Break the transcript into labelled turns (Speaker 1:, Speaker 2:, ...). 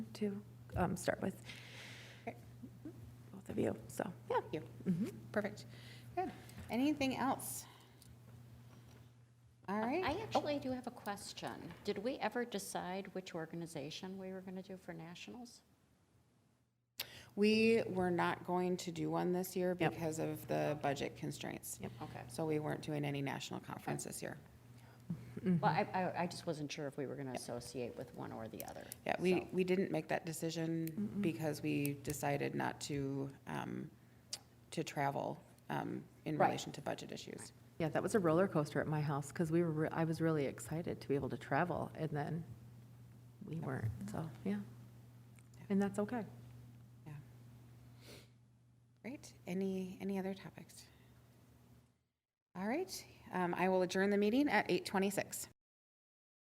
Speaker 1: to um, start with.
Speaker 2: Okay.
Speaker 1: Both of you, so, yeah.
Speaker 2: You.
Speaker 3: Mm-hmm.
Speaker 1: Mhm.
Speaker 2: Perfect. Good. Anything else? All right. Oh.
Speaker 3: I actually do have a question. Did we ever decide which organization we were going to do for nationals?
Speaker 2: We were not going to do one this year
Speaker 1: Yep.
Speaker 2: because of the budget constraints.
Speaker 1: Yep.
Speaker 3: Okay.
Speaker 2: So we weren't doing any national conference this year. Mm-hmm.
Speaker 3: Well, I, I- I just wasn't sure if we were going to associate with one or the other.
Speaker 2: Yeah, we,
Speaker 3: so.
Speaker 2: we didn't make that decision because we decided not to, um, to travel, um, in
Speaker 3: Right.
Speaker 2: relation to budget issues.
Speaker 1: Yeah, that was a roller coaster at my house because we were, re- I was really excited to be able to travel and then we weren't, so, yeah. And that's okay.
Speaker 2: Great. Any, any other topics? All right. Um, I will adjourn the meeting at eight twenty-six.